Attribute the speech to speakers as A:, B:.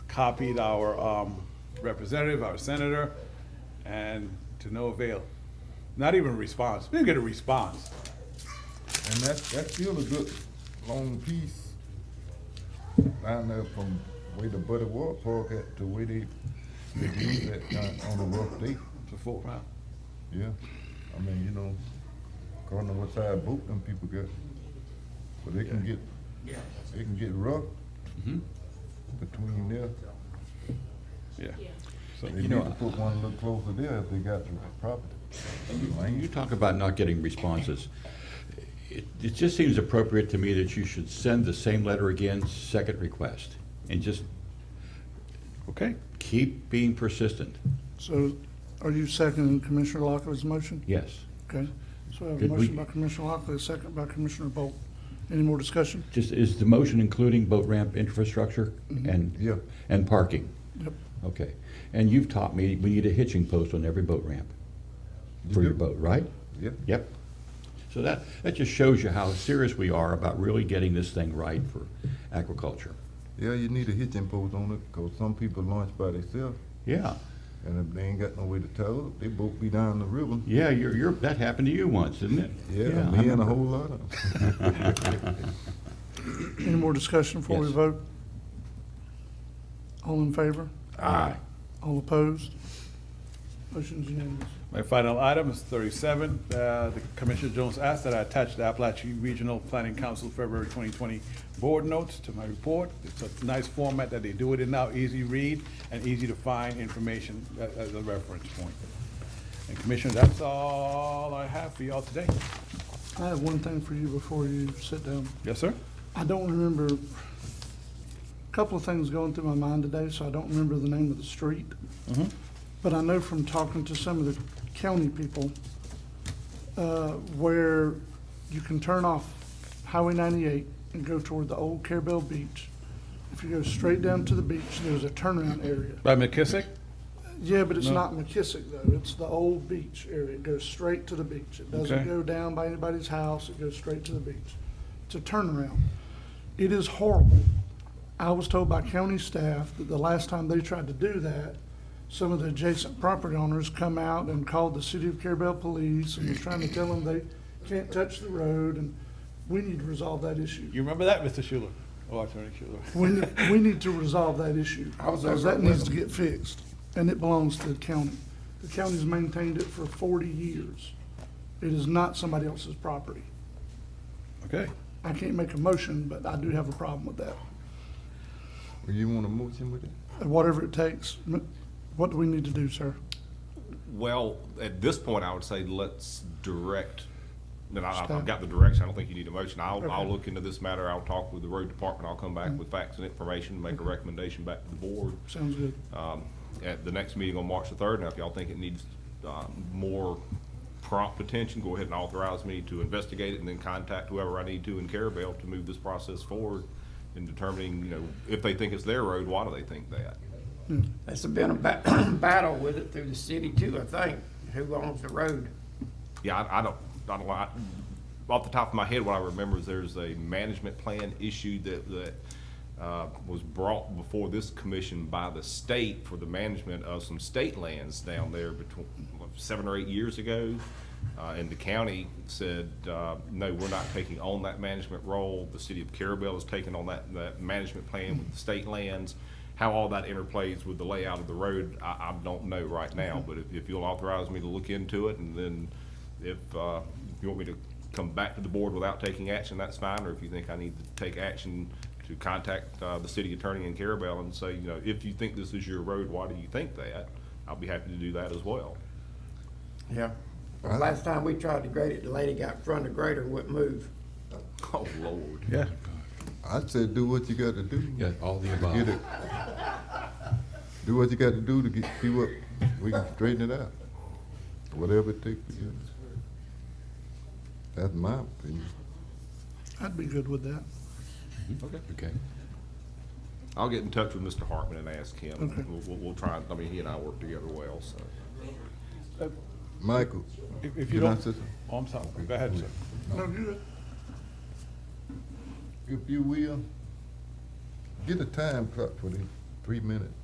A: copied our um, representative, our senator, and to no avail. Not even a response. We didn't get a response.
B: And that's, that's still a good long piece down there from where the Buddy Ward Park at to where they, they use that kind on a rough day.
A: It's a full round.
B: Yeah, I mean, you know, according to what side boot them people got. But they can get, they can get rough between there.
A: Yeah.
B: They
A: So,
B: need to put one a little closer there if they got the property.
C: You talk about not getting responses. It, it just seems appropriate to me that you should send the same letter again, second request, and just
A: okay.
C: keep being persistent.
D: So are you seconding Commissioner Lockley's motion?
C: Yes.
D: Okay, so I have a
C: Did we-
D: motion by Commissioner Lockley, a second by Commissioner Bolt. Any more discussion?
C: Just, is the motion including boat ramp infrastructure and?
B: Yeah.
C: And parking?
D: Yep.
C: Okay. And you've taught me, we need a hitching post on every boat ramp for your
B: do?
C: boat, right?
B: Yeah,
C: Yep. So that, that just shows you how serious we are about really getting this thing right for aquaculture.
B: yeah, you need a hitching post on it, cause some people launch by themselves,
C: Yeah.
B: and if they ain't got no way to tow it, they boat be down the river.
C: Yeah, you're, you're, that happened to you once, didn't it?
B: Yeah,
C: I
B: me and a
C: remember.
B: whole lot of 'em.
D: Any more discussion before we
C: Yes.
D: vote? All in favor?
C: Aye.
D: All opposed? Motion's unanimous.
A: My final item is thirty-seven. Uh, The Commissioner Jones asked that I attach the Appalachian Regional Planning Council February twenty twenty board notes to my report. It's a nice format that they do it in now, easy read and easy to find information a- as a reference point. And Commissioner, that's all I have for y'all today.
D: I have one thing for you before you sit down.
A: Yes, sir?
D: I don't remember, a couple of things going through my mind today, so I don't remember the name of the street. But I know from talking to some of the county people, uh, where you can turn off Highway 98 and go toward the old Carabel Beach. If you go straight down to the beach, there's a turnaround area.
A: By McKissick?
D: Yeah, but it's
A: No.
D: not McKissick though. It's the old beach area. It goes straight to the beach. It doesn't
A: Okay.
D: go down by anybody's house. It goes straight to the beach. It's a turnaround. It is horrible. I was told by county staff that the last time they tried to do that, some of the adjacent property owners come out and called the city of Carabel Police and was trying to tell them they can't touch the road and we need to resolve that issue.
A: You remember that, Mr. Schuler? Oh, Attorney Schuler.
D: We, need- we need to resolve that issue.
B: I was
D: Because
B: over
D: that
B: with
D: needs to
B: them.
D: get fixed, and it belongs to the county. The county's maintained it for forty years. It is not somebody else's property.
A: Okay.
D: I can't make a motion, but I do have a problem with that.
B: Well, You want a motion with it?
D: Whatever it takes, m- what do we need to do, sir?
E: Well, at this point, I would say let's direct, that I- I've
D: Staff.
E: got the direction, I don't think you need a motion. I'll, I'll
D: Okay.
E: look into this matter, I'll talk with the road department, I'll come back with facts and information, make a recommendation back to the board
D: Sounds good.
E: um, at the next meeting on March the third. Now, if y'all think it needs uh, more prompt attention, go ahead and authorize me to investigate it and then contact whoever I need to in Carabel to move this process forward in determining, you know, if they think it's their road, why do they think that?
F: That's been a ba- battle with it through the city too, I think, who owns the road.
E: Yeah, I, I don't, I don't, I, off the top of my head, what I remember is there's a management plan issue that, that, uh, was brought before this commission by the state for the management of some state lands down there between, what, seven or eight years ago. Uh, and the county said, uh, no, we're not taking on that management role. The city of Carabel is taking on that, that management plan with the state lands. How all that interplays with the layout of the road, I, I don't know right now, but if, if you'll authorize me to look into it and then if uh, you want me to come back to the board without taking action, that's fine, or if you think I need to take action to contact uh, the city attorney in Carabel and say, you know, if you think this is your road, why do you think that? I'll be happy to do that as well.
F: Yeah. Last time we tried to grade it, the lady got in front of the grader, wouldn't move.
E: Oh, Lord.
A: Yeah.
B: I said, do what you gotta do.
C: Yeah, all the
B: Get
C: above.
B: it. Do what you gotta do to get, see what, we can straighten it out. Whatever it takes to get it. That's my opinion.
D: I'd be good with that.
C: Okay.
E: I'll get in touch with Mr. Hartman and ask him.
D: Okay.
E: We'll- We'll, we'll try, I mean, he and I work together well, so.
B: Michael,
A: Uh, If, if you
B: Can I
A: don't,
B: say something?
A: oh, I'm sorry. Go ahead, sir.
D: No, good.
B: if you will, get a time clock for this. three minutes.